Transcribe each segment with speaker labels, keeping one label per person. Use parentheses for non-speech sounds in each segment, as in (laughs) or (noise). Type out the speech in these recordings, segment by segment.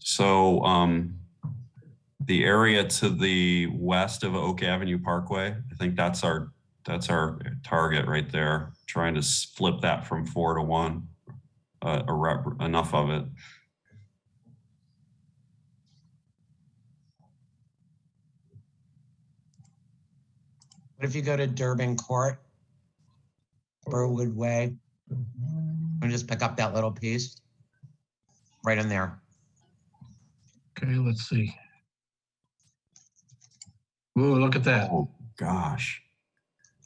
Speaker 1: So um, the area to the west of Oak Avenue Parkway, I think that's our, that's our target right there, trying to s- flip that from four to one. Uh, a rep- Enough of it.
Speaker 2: What if you go to Durban Court? Burwood Way? And just pick up that little piece? Right in there.
Speaker 3: Okay, let's see. Ooh, look at that.
Speaker 1: Oh, gosh.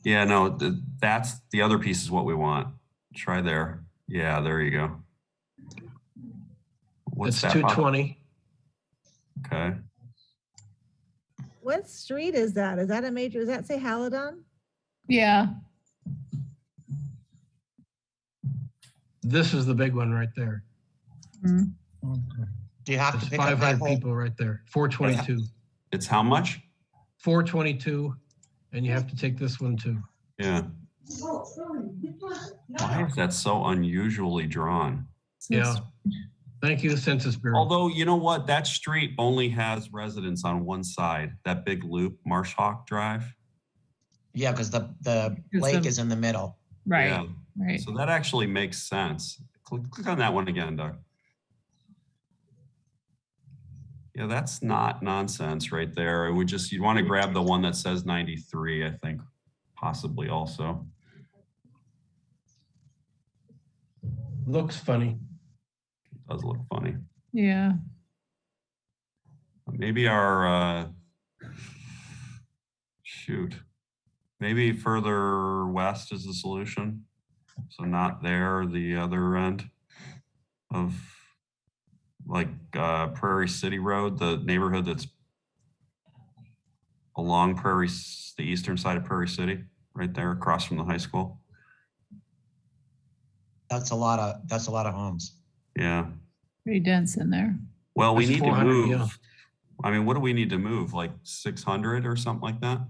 Speaker 1: Yeah, no, th- that's, the other piece is what we want. Try there. Yeah, there you go. What's
Speaker 3: That's
Speaker 1: that? pop-
Speaker 3: 220.
Speaker 1: Okay.
Speaker 4: What street is that? Is that a major, does that say Halidon?
Speaker 5: Yeah,
Speaker 3: This is the big one right there.
Speaker 5: Mm.
Speaker 2: Do you have
Speaker 3: It's
Speaker 2: to pick up
Speaker 3: 500
Speaker 2: that whole?
Speaker 3: people right there. 422.
Speaker 1: It's how much?
Speaker 3: 422. And you have to take this one too.
Speaker 1: Yeah. Why is that so unusually drawn?
Speaker 3: Yeah. Thank you, Census Bureau.
Speaker 1: Although, you know what? That street only has residents on one side, that big loop, Marsh Hawk Drive.
Speaker 2: Yeah, because the, the
Speaker 5: Because
Speaker 2: lake
Speaker 5: the-
Speaker 2: is in the middle.
Speaker 5: right,
Speaker 1: Yeah,
Speaker 5: right.
Speaker 1: So that actually makes sense. Click, click on that one again, Doug. Yeah, that's not nonsense right there. It would just, you'd want to grab the one that says 93, I think, possibly also.
Speaker 3: Looks funny.
Speaker 1: Does look funny.
Speaker 5: Yeah.
Speaker 1: Maybe our, uh, shoot, maybe further west is the solution. So not there, the other end of like uh, Prairie City Road, the neighborhood that's along Prairie, s- the eastern side of Prairie City, right there across from the high school.
Speaker 2: That's a lot of, that's a lot of homes.
Speaker 1: Yeah.
Speaker 5: Pretty dense in there.
Speaker 1: Well, we
Speaker 3: That's
Speaker 1: need to
Speaker 3: 400, yeah.
Speaker 1: move. I mean, what do we need to move? Like 600 or something like that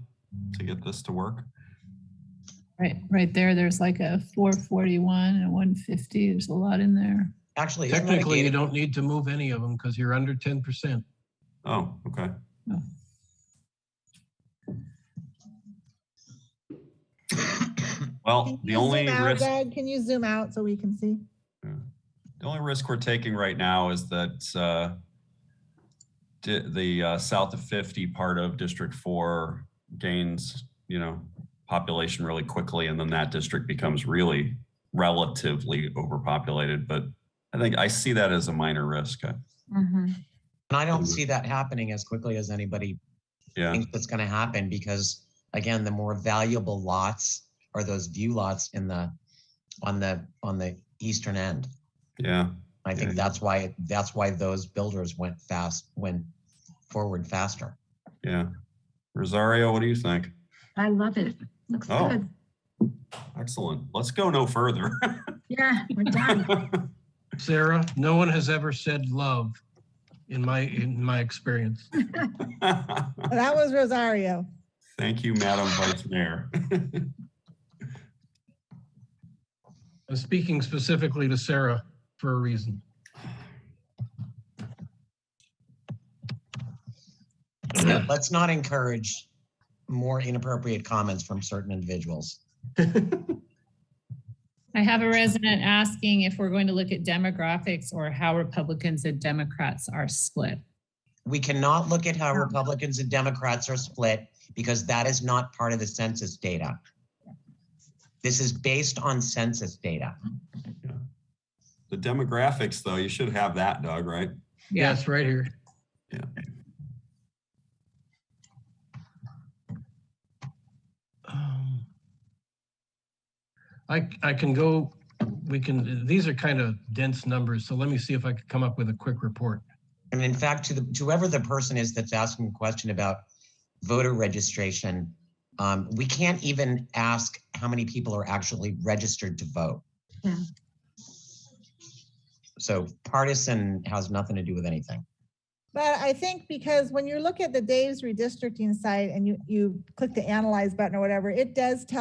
Speaker 1: to get this to work?
Speaker 5: Right, right there, there's like a 441 and 150. There's a lot in there.
Speaker 2: Actually, isn't that a
Speaker 3: Technically, you
Speaker 2: gated,
Speaker 3: don't need to move any of them because you're under 10%.
Speaker 1: Oh, okay.
Speaker 4: Hmm.
Speaker 5: Oh.
Speaker 4: Can
Speaker 1: Well,
Speaker 4: you
Speaker 1: Oh, the
Speaker 4: zoom
Speaker 1: only
Speaker 4: out,
Speaker 1: risk,
Speaker 4: Doug? Can you zoom out so we can see?
Speaker 1: the only risk we're taking right now is that uh, di- the uh, south of 50 part of District 4 gains, you know, population really quickly, and then that district becomes really relatively overpopulated. But I think I see that as a minor risk. I-
Speaker 2: and I don't see that happening as quickly as anybody
Speaker 1: Yeah.
Speaker 2: thinks that's gonna happen because again, the more valuable lots are those view lots in the, on the, on the eastern end.
Speaker 1: Yeah,
Speaker 2: I think
Speaker 1: Yeah.
Speaker 2: that's why, that's why those builders went fast, went forward faster.
Speaker 1: yeah. Rosario, what do you think?
Speaker 6: I love it. Looks
Speaker 1: Oh.
Speaker 6: good.
Speaker 1: Excellent. Let's go no further.
Speaker 6: Yeah, we're done.
Speaker 1: (laughs)
Speaker 3: Sarah, no one has ever said love in my, in my experience.
Speaker 4: That was Rosario.
Speaker 1: Thank you, Madam Vice Mayor.
Speaker 3: I'm speaking specifically to Sarah for a reason.
Speaker 2: Yeah, (clears throat) Let's not encourage more inappropriate comments from certain individuals.
Speaker 5: I have a resident asking if we're going to look at demographics or how Republicans and Democrats are split.
Speaker 2: We cannot look at how Republicans and Democrats are split because that is not part of the census data. This is based on census data.
Speaker 1: The demographics, though, you should have that, Doug, right?
Speaker 5: Yeah.
Speaker 3: Yes, right here.
Speaker 1: Yeah.
Speaker 3: Um, I, I can go, we can, these are kind of dense numbers, so let me see if I could come up with a quick report.
Speaker 2: And in fact, to the, to whoever the person is that's asking a question about voter registration, um, we can't even ask how many people are actually registered to vote.
Speaker 6: Yeah.
Speaker 2: So partisan has nothing to do with anything.
Speaker 4: But I think because when you look at the Dave's redistricting site and you, you click the analyze button or whatever, it does tell